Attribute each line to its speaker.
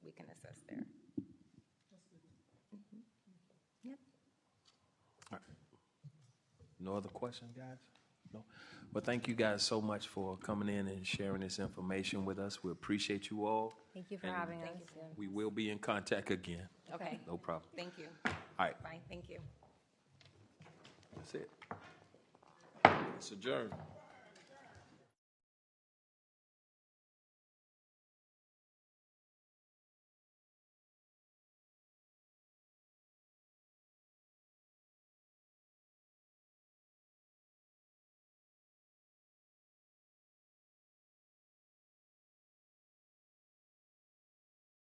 Speaker 1: No other questions, guys? No? Well, thank you guys so much for coming in and sharing this information with us. We appreciate you all.
Speaker 2: Thank you for
Speaker 1: And
Speaker 2: having us.
Speaker 1: We will be in contact again.
Speaker 2: Okay.
Speaker 3: Okay,
Speaker 1: No problem.
Speaker 3: thank you.
Speaker 1: All right,
Speaker 3: Bye, thank you.
Speaker 1: that's it. It's adjourned.